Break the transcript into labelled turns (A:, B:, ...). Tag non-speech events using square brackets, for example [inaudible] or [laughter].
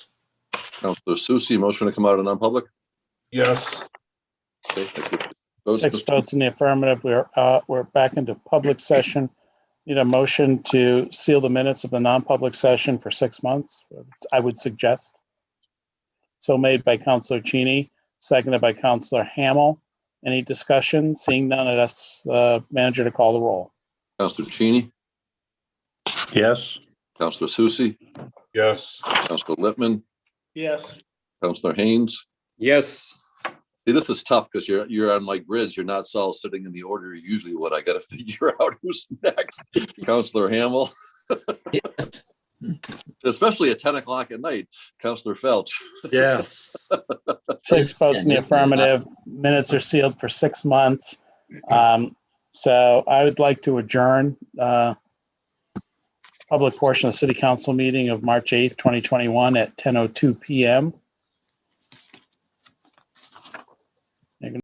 A: Counselor Susie, motion to come out of non-public?
B: Yes,
A: Okay, thank you. Votes,
C: Six
A: Mr.
C: votes in the affirmative. We're, uh, we're back into public session. Need a motion to seal the minutes of the non-public session for six months, I would suggest. So made by Counselor Cheney, seconded by Counselor Hamel. Any discussion? Seeing none, I'd ask the manager to call the roll.
A: Counselor Cheney,
D: Yes.
A: Counselor Susie,
B: yes.
A: Counselor Lippman,
C: Yes.
A: Counselor Haynes.
E: Yes.
A: See, this is tough because you're, you're on like grids. You're not all sitting in the order you usually would. I gotta [laughs] figure out who's next. Counselor Hamel,
E: Yes.
A: especially at ten o'clock at night. Counselor Felch,
E: Yes.
C: Six votes in the affirmative. Minutes are sealed for six months. Um, so I would like to adjourn, uh, oh public portion of the city council meeting of March 8th, 2021 at 10:02 PM.